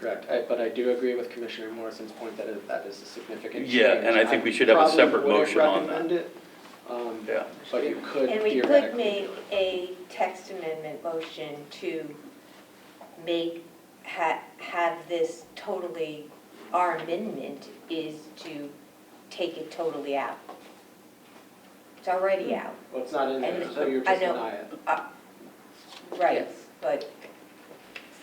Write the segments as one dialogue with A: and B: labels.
A: correct, I, but I do agree with Commissioner Morrison's point that it- that is a significant change.
B: Yeah, and I think we should have a
A: probably
B: separate
A: wouldn't
B: motion on that.
A: recommend it, um,
B: Yeah.
A: But you could
C: And we could
A: theoretically
C: make
A: do it.
C: a text amendment motion to make, ha, have this totally, our amendment is to take it totally out. It's already
D: Hmm.
C: out,
A: Well, it's not in there,
C: And-
A: so you're
C: I
A: just
C: know.
A: denying it.
C: right, but,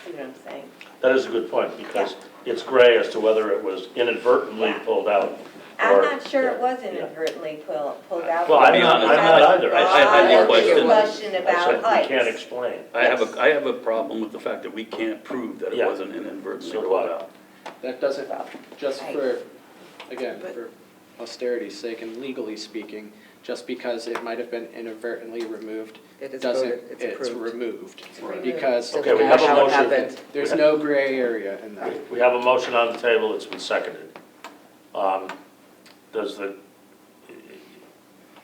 C: see what I'm saying?
E: That is a good point, because it's gray as to whether it was inadvertently
C: Yeah.
E: pulled out.
C: I'm
E: Or-
C: not sure it was
E: yeah. Uh,
C: inadvertently pulled, pulled out.
E: Well,
B: I'm not- I'm
E: not either. I-
B: I- I
C: Have a
B: think question-
C: discussion
E: I said,
C: about
E: we can't
C: heights.
E: explain.
B: I have a, I have a problem with the fact that we can't prove that it
E: Yeah.
B: wasn't inadvertently
E: So do
B: brought
E: I.
B: out.
A: That doesn't, just
C: I-
A: for, again, for austerity's sake and legally speaking, just because it might have been inadvertently removed,
D: It is
A: doesn't,
D: voted, it's
A: it's
D: approved.
A: removed.
C: Right.
A: Because
E: Okay, we have a
D: How it
E: motion.
D: happened.
A: there's no gray area in that.
E: We- We have a motion on the table, it's been seconded. Um, Does the,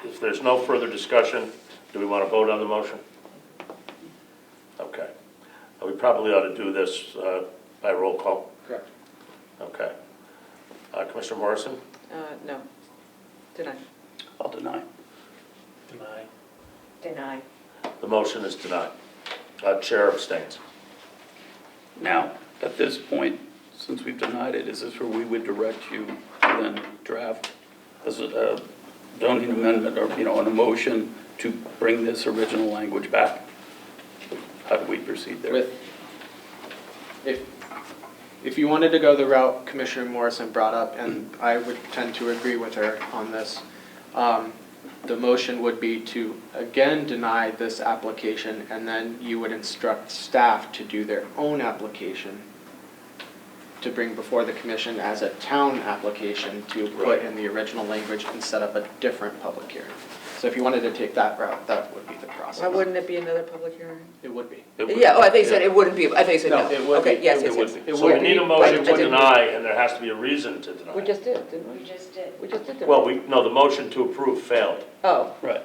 E: if there's no further discussion, do we want to vote on the motion? Okay. Uh, We probably ought to do this uh, by roll call.
A: Correct.
E: Okay. Uh, Commissioner Morrison?
D: Uh, no, deny.
B: I'll deny.
E: Deny.
C: Deny.
E: The motion is denied. Uh, Chair abstains.
B: Now, at this point, since we've denied it, is this where we would direct you to then draft as a uh, zoning amendment or, you know, an emotion to bring this original language back? How do we proceed there?
A: With, if, if you wanted to go the route Commissioner Morrison brought up, and I would tend to agree with her on this, um, the motion would be to again deny this application, and then you would instruct staff to do their own application to bring before the commission as a town application to put
E: Right.
A: in the original language and set up a different public hearing. So if you wanted to take that route, that would be the process.
D: Why wouldn't it be another public hearing?
A: It would be.
B: It would-
D: Yeah, oh, I think you said it wouldn't be, I think you said
A: No,
D: no.
A: it would
D: Okay,
A: be.
D: yes,
A: It
D: yes,
B: would
D: yes.
B: be.
A: It
E: So we
A: would
E: need
A: be,
E: a
A: but-
E: motion to
D: I didn't-
E: deny, and there has to be a reason to deny.
D: We just did, didn't
C: We
D: we?
C: just did.
D: We just did that.
E: Well, we, no, the motion to approve failed.
D: Oh,
B: Right,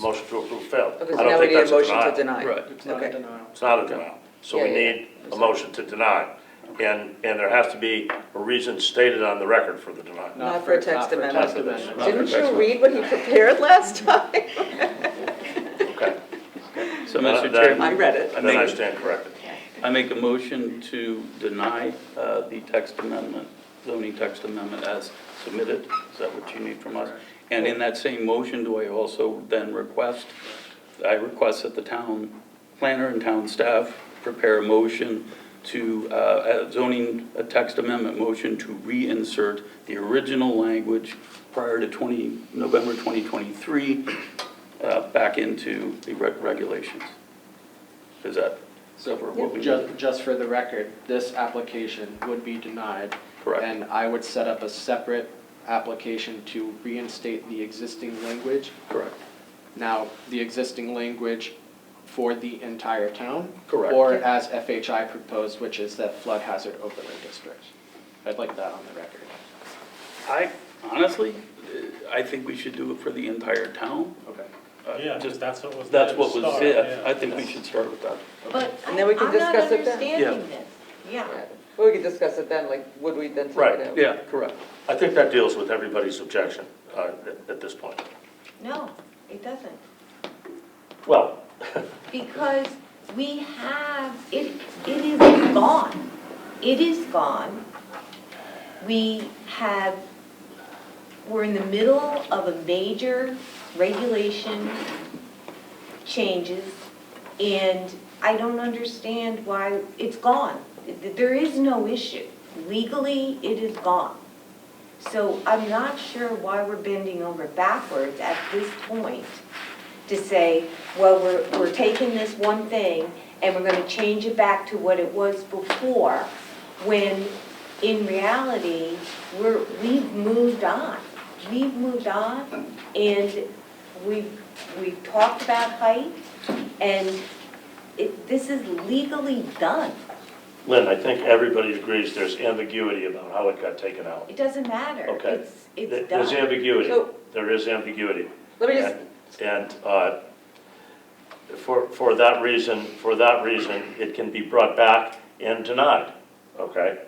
E: Motion to approve failed.
D: okay,
E: I
D: so
E: don't
D: now we
E: think
D: need a
E: that's
D: motion to
E: denial.
D: deny.
B: right.
A: It's not a
D: Okay.
A: denial.
E: It's not a denial. So we
D: Yeah, yeah,
E: need a motion to deny. And, and there has to be a reason stated on the record for the denial.
D: Not for a text
A: not for
D: amendment.
A: text amendment.
B: Not for
D: Didn't
B: text
D: you read what he prepared last time?
E: Okay.
B: So,
E: Uh,
B: Mr.
E: then-
B: Chairman.
D: I read it.
B: I
E: Then I
B: make-
E: stand corrected.
B: I make a motion to deny uh, the text amendment, zoning text amendment as submitted. Is that what you need from us? And in that same motion, do I also then request, I request that the town planner and town staff prepare a motion to, uh, a zoning, a text amendment motion to reinsert the original language prior to 20, November 2023, uh, back into the reg- regulations. Is that
A: So
B: cover what we need?
A: just, just for the record, this application would be denied.
B: Correct.
A: And I would set up a separate application to reinstate the existing language.
B: Correct.
A: Now, the existing language for the entire town.
B: Correct.
A: Or as FHI proposed, which is that flood hazard overlay district. I'd like that on the record.
B: I, honestly, uh, I think we should do it for the entire town.
A: Okay.
B: Uh,
F: Yeah,
B: Just,
F: because that's what was.
B: that's
F: there to
B: what was,
F: start,
B: yeah, I think we should start with that.
C: But I-
D: And then we can
C: I'm not
D: discuss it then.
C: understanding this, yeah.
D: Well, we could discuss it then, like, would we then take
E: Right,
D: it out?
B: Yeah, correct.
E: I think that deals with everybody's objection uh, at- at this point.
C: No, it doesn't.
E: Well,
C: Because we have, it, it is gone. It is gone. We have, we're in the middle of a major regulation changes, and I don't understand why, it's gone. There is no issue. Legally, it is gone. So I'm not sure why we're bending over backwards at this point to say, well, we're, we're taking this one thing and we're gonna change it back to what it was before, when in reality, we're, we've moved on. We've moved on and we've, we've talked about height and it, this is legally done.
E: Lynn, I think everybody agrees there's ambiguity about how it got taken out.
C: It doesn't matter.
E: Okay.
C: It's,
E: There-
C: it's
E: There's
C: done.
E: ambiguity.
D: So-
E: There is ambiguity.
D: Let me just,
E: And uh, for, for that reason, for that reason, it can be brought back and denied, okay?